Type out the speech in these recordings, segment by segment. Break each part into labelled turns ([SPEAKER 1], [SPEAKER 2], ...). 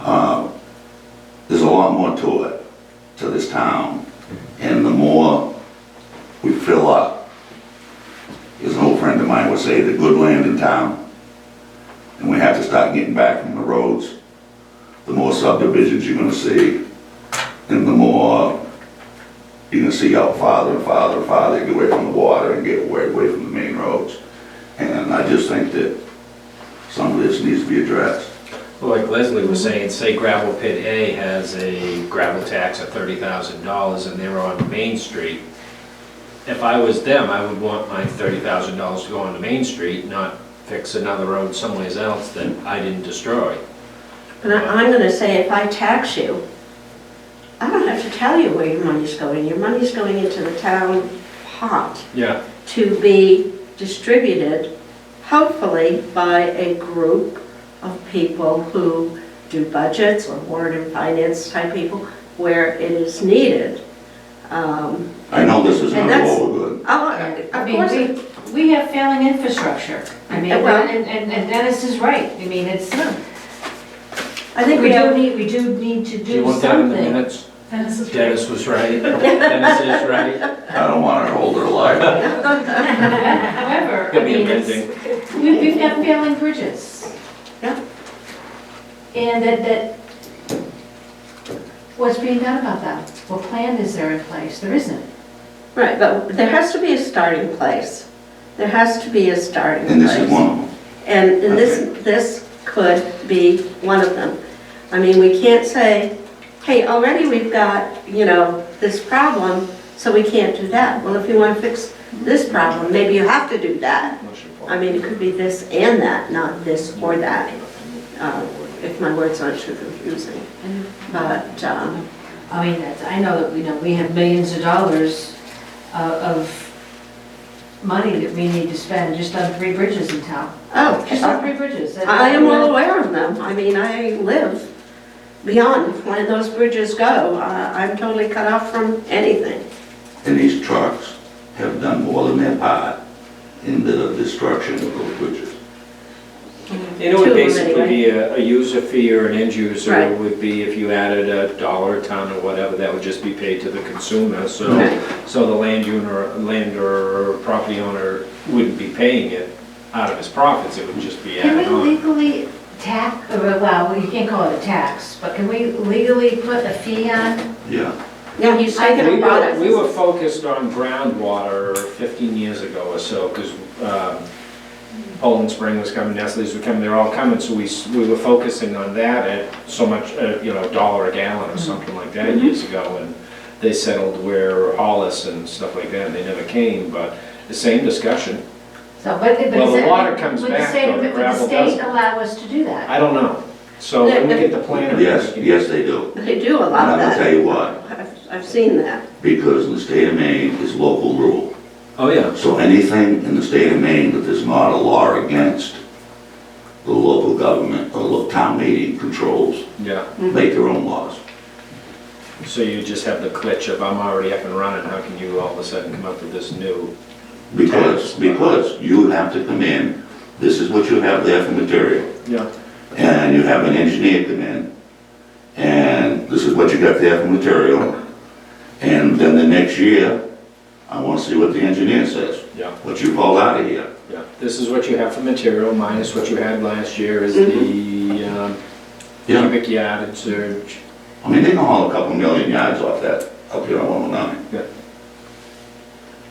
[SPEAKER 1] uh, lot more to it, to this town. And the more we fill up, as an old friend of mine would say, the good land in town. And we have to start getting back from the roads. The more subdivisions you're gonna see, and the more you're gonna see out farther and farther and farther, get away from the water and get away, away from the main roads. And I just think that some of this needs to be addressed.
[SPEAKER 2] Well, Like Leslie was saying, say gravel pit A has a gravel tax of thirty thousand dollars and they're on Main Street. If I was them, I would want my thirty thousand dollars to go on to Main Street, not fix another road someplace else that I didn't destroy.
[SPEAKER 3] And I- I'm gonna say, if I tax you, I don't have to tell you where your money's going. Your money's going into the town pot
[SPEAKER 2] Yeah.
[SPEAKER 3] to be distributed, hopefully by a group of people who do budgets or warrant and finance type people where it is needed. Um,
[SPEAKER 1] I know this is
[SPEAKER 3] And
[SPEAKER 1] not
[SPEAKER 3] that's-
[SPEAKER 1] all good.
[SPEAKER 3] I'll-
[SPEAKER 4] I
[SPEAKER 3] Of
[SPEAKER 4] mean,
[SPEAKER 3] course, it-
[SPEAKER 4] we, we have failing infrastructure. I mean,
[SPEAKER 3] Yeah, well-
[SPEAKER 4] and, and and Dennis is right. I mean, it's,
[SPEAKER 3] I think we
[SPEAKER 4] do
[SPEAKER 3] do,
[SPEAKER 4] need, we do need to
[SPEAKER 2] Do you
[SPEAKER 4] do
[SPEAKER 2] want that in the
[SPEAKER 4] something.
[SPEAKER 2] minutes? Dennis was right. Dennis is right.
[SPEAKER 1] I don't want to hold her liable.
[SPEAKER 4] However, I
[SPEAKER 2] Could be
[SPEAKER 4] mean,
[SPEAKER 2] amending.
[SPEAKER 4] it's, we, we've got failing bridges.
[SPEAKER 3] Yeah.
[SPEAKER 4] And that, that, what's being done about that? What plan is there in place? There isn't.
[SPEAKER 3] right, but there has to be a starting place. There has to be a starting place.
[SPEAKER 1] And this is one of them.
[SPEAKER 3] And and this, this could be one of them. I mean, we can't say, hey, already we've got, you know, this problem, so we can't do that. Well, if you want to fix this problem, maybe you have to do that. I mean, it could be this and that, not this or that, uh, if my words aren't too confusing. But, um,
[SPEAKER 4] I mean, that's, I know that, you know, we have millions of dollars uh, of money that we need to spend just on three bridges in town. Just on
[SPEAKER 3] oh,
[SPEAKER 4] three bridges. That-
[SPEAKER 3] I am well aware of them. I mean, I live beyond where those bridges go. Uh, I'm totally cut off from anything.
[SPEAKER 1] And these trucks have done more than their part in the destruction of those bridges.
[SPEAKER 2] You know, it
[SPEAKER 3] Two
[SPEAKER 2] would
[SPEAKER 3] of them
[SPEAKER 2] basically
[SPEAKER 3] anyway.
[SPEAKER 2] be a, a user fee or an end user
[SPEAKER 3] Right.
[SPEAKER 2] would be if you added a dollar a ton or whatever, that would just be paid to the consumer, so,
[SPEAKER 3] Right.
[SPEAKER 2] so the land owner, land or property owner wouldn't be paying it out of his profits, it would just be
[SPEAKER 4] Can
[SPEAKER 2] added
[SPEAKER 4] we
[SPEAKER 2] on.
[SPEAKER 4] legally tax, or, well, you can't call it a tax, but can we legally put a fee on?
[SPEAKER 1] Yeah.
[SPEAKER 3] Yeah, he's
[SPEAKER 4] I
[SPEAKER 3] taking
[SPEAKER 2] We
[SPEAKER 3] a
[SPEAKER 2] were, we
[SPEAKER 3] product.
[SPEAKER 2] were focused on groundwater fifteen years ago or so, because, um, Poland Spring was coming, Nestle's were coming, they're all coming, so we, s- we were focusing on that at so much, uh, you know, dollar a gallon or something like that years ago, and they settled where Hollis and stuff like that, and they never came, but the same discussion,
[SPEAKER 4] So, but, but.
[SPEAKER 2] Well, the
[SPEAKER 4] is it-
[SPEAKER 2] water comes
[SPEAKER 4] would the
[SPEAKER 2] back,
[SPEAKER 4] state-
[SPEAKER 2] though, the
[SPEAKER 4] would
[SPEAKER 2] gravel
[SPEAKER 4] the state
[SPEAKER 2] doesn't.
[SPEAKER 4] allow us to do that?
[SPEAKER 2] I don't know. So when we get the plan. I
[SPEAKER 1] Yes,
[SPEAKER 2] think-
[SPEAKER 1] yes, they do.
[SPEAKER 3] They do a
[SPEAKER 1] And
[SPEAKER 3] lot
[SPEAKER 1] I'm
[SPEAKER 3] of
[SPEAKER 1] gonna tell
[SPEAKER 3] that.
[SPEAKER 1] you what,
[SPEAKER 3] I've, I've seen that.
[SPEAKER 1] because in the state of Maine is local rule.
[SPEAKER 2] Oh, yeah.
[SPEAKER 1] So anything in the state of Maine that is not a law against, the local government or local town meeting controls,
[SPEAKER 2] Yeah,
[SPEAKER 3] Mm-hmm.
[SPEAKER 1] make their own laws.
[SPEAKER 2] so you just have the glitch of I'm already up and running, how can you all of a sudden come up with this new?
[SPEAKER 1] Because, because you have to come in, this is what you have there for material.
[SPEAKER 2] Yeah.
[SPEAKER 1] and you have an engineer come in, and this is what you got there for material, and then the next year, I want to see what the engineer says,
[SPEAKER 2] Yeah,
[SPEAKER 1] what you pulled out of here.
[SPEAKER 2] yeah. This is what you have for material minus what you had last year is the um,
[SPEAKER 1] Yeah,
[SPEAKER 2] cubic yardage or
[SPEAKER 1] I mean, they can haul a couple million yards off that, up here on 109.
[SPEAKER 2] Yeah.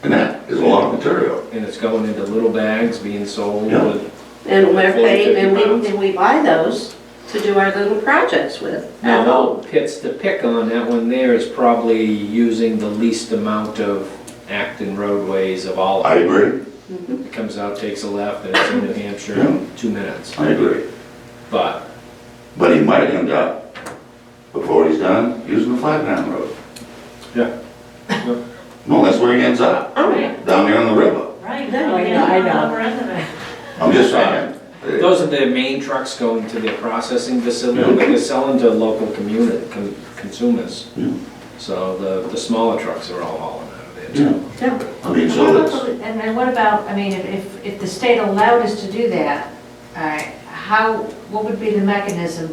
[SPEAKER 1] And that is a lot of material.
[SPEAKER 2] and it's going into little bags being sold
[SPEAKER 1] Yeah.
[SPEAKER 2] with,
[SPEAKER 3] And we're
[SPEAKER 2] Forty,
[SPEAKER 3] paid, and we,
[SPEAKER 2] fifty pounds.
[SPEAKER 3] and we buy those to do our little projects with at
[SPEAKER 2] now,
[SPEAKER 3] home.
[SPEAKER 2] the pits to pick on, that one there is probably using the least amount of Acton roadways of all.
[SPEAKER 1] I
[SPEAKER 2] of them.
[SPEAKER 1] agree,
[SPEAKER 2] It comes out, takes a left, and it's in New Hampshire in two minutes.
[SPEAKER 1] I agree.
[SPEAKER 2] But,
[SPEAKER 1] But he might end up, before he's done, using the Flatground Road.
[SPEAKER 2] Yeah. Yeah.
[SPEAKER 1] No, that's where he ends up,
[SPEAKER 3] Oh, yeah.
[SPEAKER 1] down there on the river.
[SPEAKER 5] Right.
[SPEAKER 4] Oh,
[SPEAKER 3] No, I
[SPEAKER 5] yeah,
[SPEAKER 3] know, I know.
[SPEAKER 5] on the rest of it.
[SPEAKER 1] I'm just saying.
[SPEAKER 2] those are the main trucks going to their processing facility, but they're selling to local community, con- consumers.
[SPEAKER 1] Yeah.
[SPEAKER 2] So the, the smaller trucks are all hauling out of there
[SPEAKER 1] Yeah.
[SPEAKER 2] too.
[SPEAKER 3] Yeah,
[SPEAKER 1] I mean,
[SPEAKER 4] And
[SPEAKER 1] so
[SPEAKER 4] what
[SPEAKER 1] it's,
[SPEAKER 4] about- And then what about, I mean, if- if, if the state allowed us to do that, all right, how, what would be the mechanism